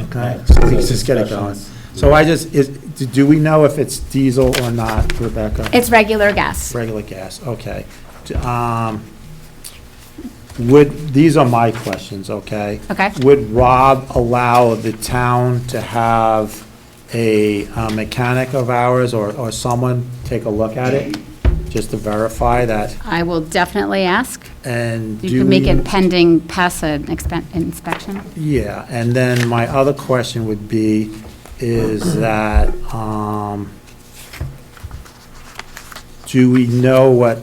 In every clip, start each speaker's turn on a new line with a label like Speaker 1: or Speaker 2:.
Speaker 1: Okay, let's just get it going. So I just, is, do we know if it's diesel or not, Rebecca?
Speaker 2: It's regular gas.
Speaker 1: Regular gas, okay. D- um, Would, these are my questions, okay?
Speaker 2: Okay.
Speaker 1: Would Rob allow the town to have a uh, mechanic of ours or, or someone take a look at it? Just to verify that,
Speaker 2: I will definitely ask.
Speaker 1: and do
Speaker 2: You can make
Speaker 1: we-
Speaker 2: it pending pass an expen- inspection.
Speaker 1: Yeah, and then my other question would be, is that, um, do we know what,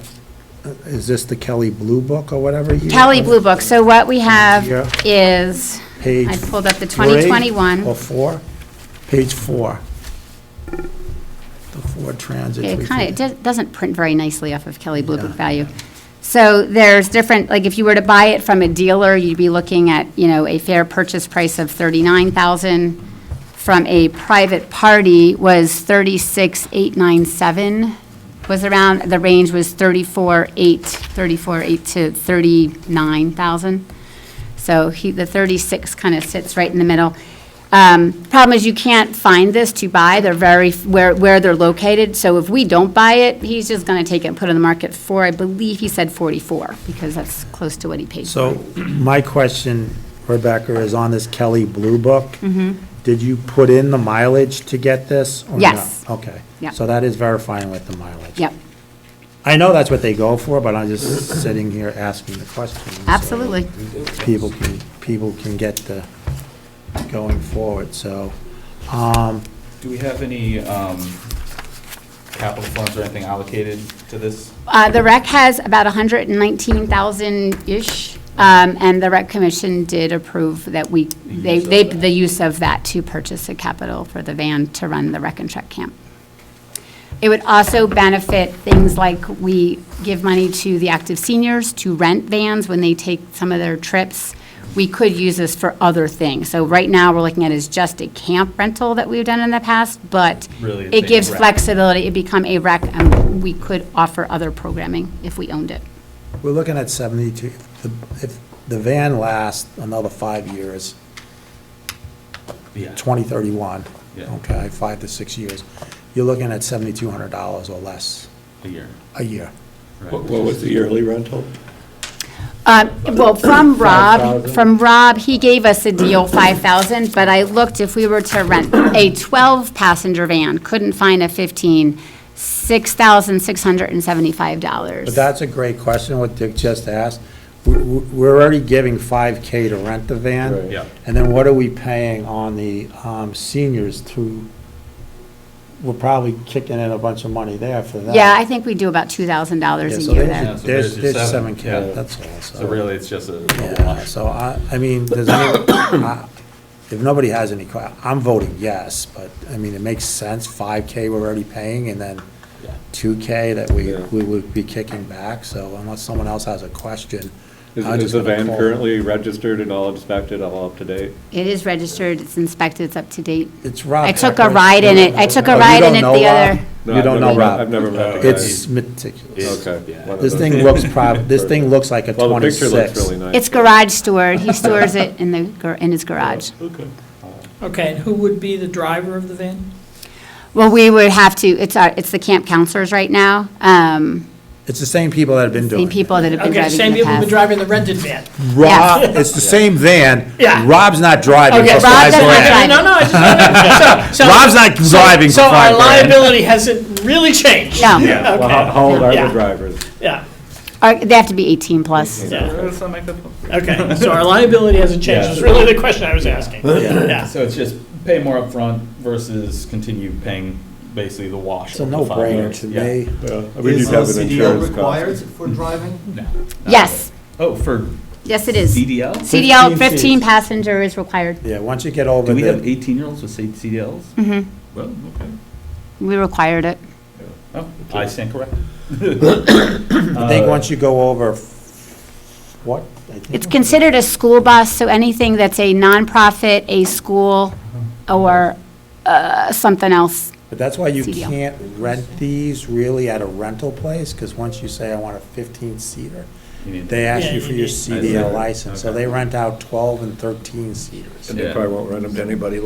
Speaker 1: is this the Kelly Blue Book or whatever? you-
Speaker 2: Kelly Blue Book, so what we have
Speaker 1: Yeah.
Speaker 2: is,
Speaker 1: Page
Speaker 2: I pulled up the
Speaker 1: three
Speaker 2: 2021.
Speaker 1: Or four? Page four. The Ford Transit.
Speaker 2: it kind
Speaker 1: 350.
Speaker 2: of, it doesn't print very nicely off of Kelly Blue Book
Speaker 1: Yeah.
Speaker 2: value. So there's different, like, if you were to buy it from a dealer, you'd be looking at, you know, a fair purchase price of 39,000. From a private party was 36,897, was around, the range was 34,8, 34,8 to 39,000. So he, the 36 kind of sits right in the middle. Um, Problem is, you can't find this to buy, they're very, where, where they're located, so if we don't buy it, he's just gonna take it and put it on the market for, I believe he said 44, because that's close to what he paid.
Speaker 1: So my question, Rebecca, is on this Kelly Blue Book.
Speaker 2: Mm-hmm.
Speaker 1: Did you put in the mileage to get this? or no?
Speaker 2: Yes.
Speaker 1: Okay.
Speaker 2: Yeah.
Speaker 1: So that is verifying with the mileage.
Speaker 2: Yep,
Speaker 1: I know that's what they go for, but I'm just sitting here asking the question. so
Speaker 2: absolutely.
Speaker 1: People can, people can get the, going forward, so, um,
Speaker 3: Do we have any um, capital funds or anything allocated to this?
Speaker 2: Uh, The rec has about 119,000-ish, um, and the rec commission did approve that we, they,
Speaker 3: use of
Speaker 2: they
Speaker 3: that.
Speaker 2: the use of that to purchase a capital for the van to run the rec and truck camp. It would also benefit things like we give money to the active seniors to rent vans when they take some of their trips. We could use this for other things. So right now, we're looking at is just a camp rental that we've done in the past, but
Speaker 3: Really, it's
Speaker 2: it
Speaker 3: a
Speaker 2: gives
Speaker 3: rec.
Speaker 2: flexibility. It become a rec, and we could offer other programming if we owned it.
Speaker 1: we're looking at seventy-two, If the- if the van lasts another five years,
Speaker 3: Yeah.
Speaker 1: twenty thirty-one.
Speaker 3: Yeah.
Speaker 1: Okay, five to six years, you're looking at seventy-two hundred dollars or less
Speaker 3: A year.
Speaker 1: a year.
Speaker 3: right?
Speaker 4: What what was the yearly rental?
Speaker 2: Uh, Well, from Rob,
Speaker 4: 5,000?
Speaker 2: from Rob, he gave us a deal, 5,000, but I looked, if we were to rent a 12-passenger van, couldn't find a 15, $6,675.
Speaker 1: But that's a great question, what Dick just asked. We- we- We're already giving 5K to rent the van.
Speaker 4: Right.
Speaker 3: Yeah.
Speaker 1: And then what are we paying on the um, seniors to, we're probably kicking in a bunch of money there for that.
Speaker 2: Yeah, I think we do about $2,000
Speaker 1: Yeah,
Speaker 2: a
Speaker 1: so
Speaker 2: year
Speaker 1: there's-
Speaker 2: there.
Speaker 3: Yeah,
Speaker 1: There's,
Speaker 3: so there's your
Speaker 1: there's
Speaker 3: seven,
Speaker 1: 7K,
Speaker 3: yeah.
Speaker 1: that's all.
Speaker 3: So really, it's just a a
Speaker 1: Yeah,
Speaker 3: wash.
Speaker 1: so I, I mean, does any, I- if nobody has any, que- I'm voting yes, but, I mean, it makes sense, five K we're already paying, and then
Speaker 3: Yeah.
Speaker 1: two K that we,
Speaker 4: Yeah.
Speaker 1: we would be kicking back, so unless someone else has a question.
Speaker 4: Is
Speaker 1: I'm
Speaker 4: is
Speaker 1: just
Speaker 4: the
Speaker 1: gonna
Speaker 4: van
Speaker 1: call-
Speaker 4: currently registered and all inspected, all up to date?
Speaker 2: It is registered, it's inspected, it's up to date.
Speaker 1: It's Rob.
Speaker 2: I took a
Speaker 1: Pepper.
Speaker 2: ride in it, I took
Speaker 1: Oh,
Speaker 2: a
Speaker 1: you
Speaker 2: ride in
Speaker 1: don't
Speaker 2: it
Speaker 1: know
Speaker 2: the
Speaker 1: Rob?
Speaker 2: other.
Speaker 4: No,
Speaker 1: You
Speaker 4: I've
Speaker 1: don't know
Speaker 4: never met- I've
Speaker 1: Rob.
Speaker 4: never met the guy.
Speaker 1: It's meticulous.
Speaker 4: Okay.
Speaker 3: Yeah.
Speaker 4: one of
Speaker 1: This
Speaker 4: those.
Speaker 1: thing looks prob, this thing looks like a
Speaker 4: Well, the picture looks
Speaker 1: twenty-six.
Speaker 4: really nice.
Speaker 2: It's garage stored, he stores it in the, gar- in his garage.
Speaker 4: Okay.
Speaker 5: Okay, and who would be the driver of the van?
Speaker 2: Well, we would have to, it's our, it's the camp counselors right now, um,
Speaker 1: It's the same people that have been doing
Speaker 2: same
Speaker 1: it.
Speaker 2: people that have been
Speaker 5: Okay,
Speaker 2: driving
Speaker 5: same
Speaker 2: in the
Speaker 5: people who've been
Speaker 2: past.
Speaker 5: driving the rented van.
Speaker 1: Rob, it's the same van.
Speaker 5: Yeah.
Speaker 1: Rob's not driving
Speaker 5: Okay,
Speaker 1: for five
Speaker 5: Rob's
Speaker 2: not
Speaker 1: grand.
Speaker 2: driving.
Speaker 5: No, no, I just wanna- so- so-
Speaker 1: Rob's not
Speaker 5: so-
Speaker 1: driving for
Speaker 5: So our
Speaker 1: five grand.
Speaker 5: liability hasn't really changed.
Speaker 2: No,
Speaker 4: Yeah, well, how- how old are
Speaker 5: Yeah.
Speaker 4: the drivers?
Speaker 5: Yeah,
Speaker 2: Or they have to be 18 plus.
Speaker 5: yeah,
Speaker 3: Does that make the-
Speaker 5: okay, so our liability hasn't changed, is really the question I was asking. Yeah,
Speaker 3: So it's just pay more upfront versus continue paying basically the wash.
Speaker 1: It's a
Speaker 3: over the five
Speaker 1: no-brainer
Speaker 3: years.
Speaker 1: to
Speaker 3: Yeah.
Speaker 1: me.
Speaker 4: Yeah, I mean,
Speaker 6: Is
Speaker 4: you'd have an
Speaker 6: CDL
Speaker 4: insurance
Speaker 6: required
Speaker 4: cost.
Speaker 6: for driving?
Speaker 3: No, not
Speaker 2: Yes,
Speaker 3: really. Oh, for
Speaker 2: yes, it is.
Speaker 3: CDL?
Speaker 2: CDL,
Speaker 1: 15
Speaker 2: 15
Speaker 1: seats.
Speaker 2: passenger is required.
Speaker 1: Yeah, once you get over
Speaker 3: Do
Speaker 1: the.
Speaker 3: we have 18-year-olds with CDLs? Mm-hmm. Well, okay.
Speaker 2: We required it.
Speaker 3: Oh, I stand corrected.
Speaker 1: I think once you go over, f- what? I think-
Speaker 2: It's considered a school bus, so anything that's a nonprofit, a school, or uh, something else.
Speaker 1: But that's why you
Speaker 2: CDL.
Speaker 1: can't rent these really at a rental place, because once you say, I want a fifteen-seater,
Speaker 3: You need-
Speaker 1: they ask you
Speaker 5: Yeah,
Speaker 1: for
Speaker 5: you
Speaker 1: your
Speaker 5: need-
Speaker 1: CDL license, so
Speaker 3: Okay.
Speaker 1: they rent out twelve and thirteen-seaters.
Speaker 4: And they
Speaker 3: Yeah.
Speaker 4: probably won't rent them to anybody